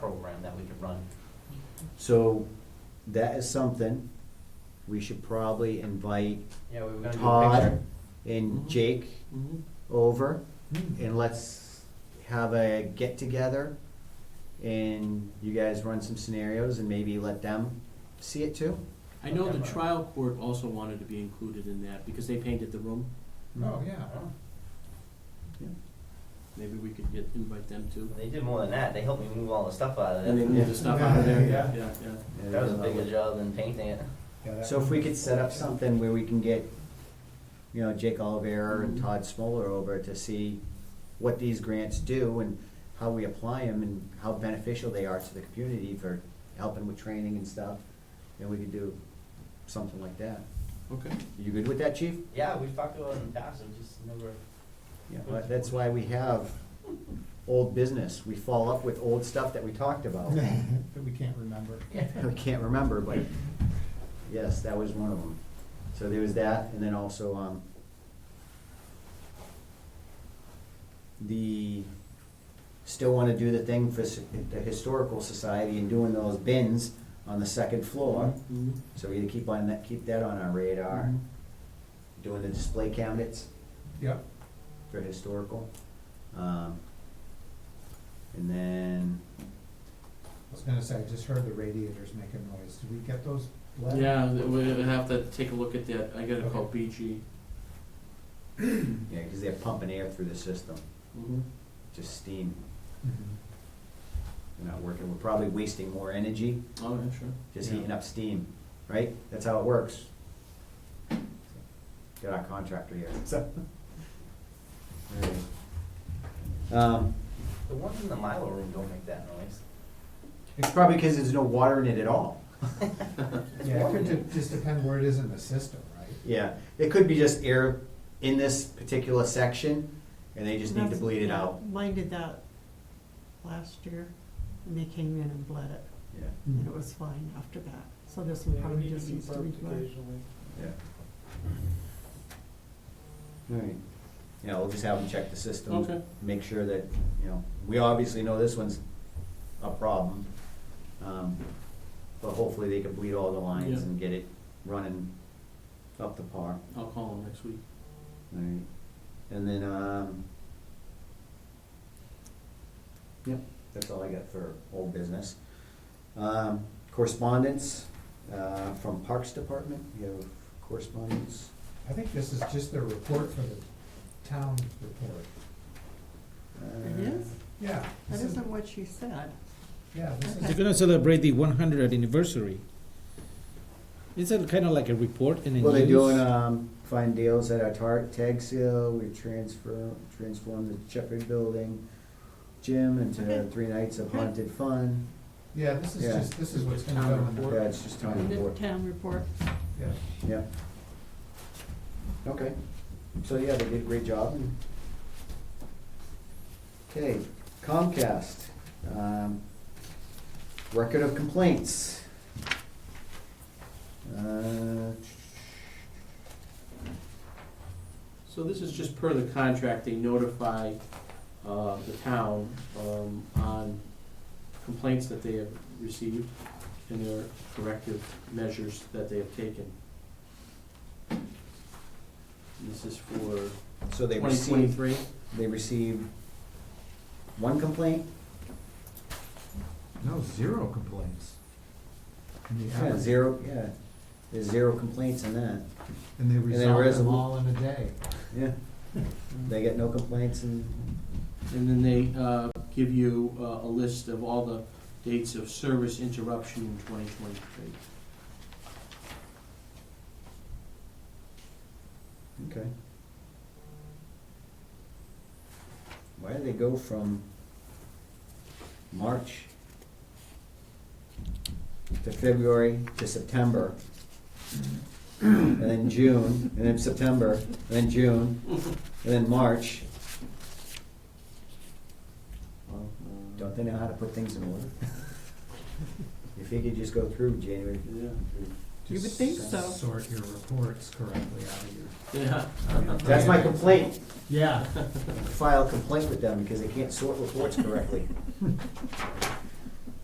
So that is something we should probably invite Yeah, we were gonna do a Todd picture. Mm-hmm. and Mhm. Jake Mhm. over Hmm. Mhm. and let's have a get together and you guys run some scenarios and maybe let them see it too. I know Okay. the trial court also wanted to be included in that because they painted the room. Oh, yeah. Maybe we could get, invite them too. They did more than that, they helped me move all the stuff out of And they there. moved the stuff out of there, yeah, Yeah. yeah, yeah. That was a bigger job than painting it. Yeah, that So if would- we could set up something where we can get, you know, Jake Oliver and Todd Smoller over to see what these grants do and how we apply them and how beneficial they are to the community for helping with training and stuff, then we could do something like that. Okay. You good with that, chief? Yeah, we've talked about it in the past, it just never. Yeah, but that's why we have old business. We follow up with old stuff that we talked about. That we can't remember. I can't remember, but yes, that was one of them. So there was that, and then also, um, the, still wanna do the thing for s- the historical society and doing those bins on the second floor. Mhm. So we gotta keep on that, keep that on our radar, doing the display cabinets Mm-hmm. Yep. for historical. Um, and then, I was gonna say, I just heard the radiators make a noise. Did we get those? let- Yeah, th- we'll have to take a look at that. I gotta call Okay. BG. yeah, cause they're pumping air through the system, Mhm. just steam. Mhm. We're not working, we're probably wasting more energy, Oh, yeah, sure. just Yeah. heating up steam, right? That's how it works. Got our contractor here, so. Alright. Um, The ones in the Milo room don't make that noise. it's probably because there's no water in it at all. Yeah, it could ju- just depend where it is in the system, right? Yeah, it could be just air in this particular section, and they just need to That's- bleed it out. Mine did that last year, and they came in and bled it, Yeah, Hmm. and Mm-hmm. it was fine after that. So this one Yeah, we probably need to just be needs to be burped bled. occasionally. yeah. Alright, yeah, we'll just have them check the system. Okay. make sure that, you know, we obviously know this one's a problem. um, But hopefully they can bleed all the lines Yeah. and get it running up to par. I'll call him next week. Alright, and then, um, yep, that's all I got for old business. Um, correspondence, uh, from Parks Department, you have correspondence? I think this is just their report for the town report. Uh, It is? Yeah. That this is- isn't what she said. Yeah, this Okay. is, They're gonna celebrate the 100th anniversary. It's a kind of like a report and a Well, they're news. doing, um, fine deals at our tar- tag sale, we transfer, transformed the Shepherd Building gym into Okay. three nights of Okay. haunted fun. yeah, this is Yeah. just, this is what's gonna Town go in the. report. Yeah, it's just town The report, town report. Yeah. yeah. Okay, so yeah, they did a great job. Okay, Comcast, um, record of complaints. Uh, So this is just per the contract, they notify, uh, the town, um, on complaints that they have received and their corrective measures that they have taken. And This is for so they twenty received twenty-three, they received one complaint, No, zero complaints. And the yeah, average- zero, yeah, there's zero complaints in that, And they there resolved is them a- all in a day. yeah. They get no complaints and, and then they, uh, give you, uh, a list of all the dates of service interruption in twenty twenty-three. okay. Why do they go from March to February to September? And then June, and then September, and then June, and then March, don't they know how to put things in order? If you could just go through January, Yeah, You would Just uh, think so. Sort your reports correctly out of your. yeah. that's my complaint. Yeah. file a complaint with them because they can't sort reports correctly.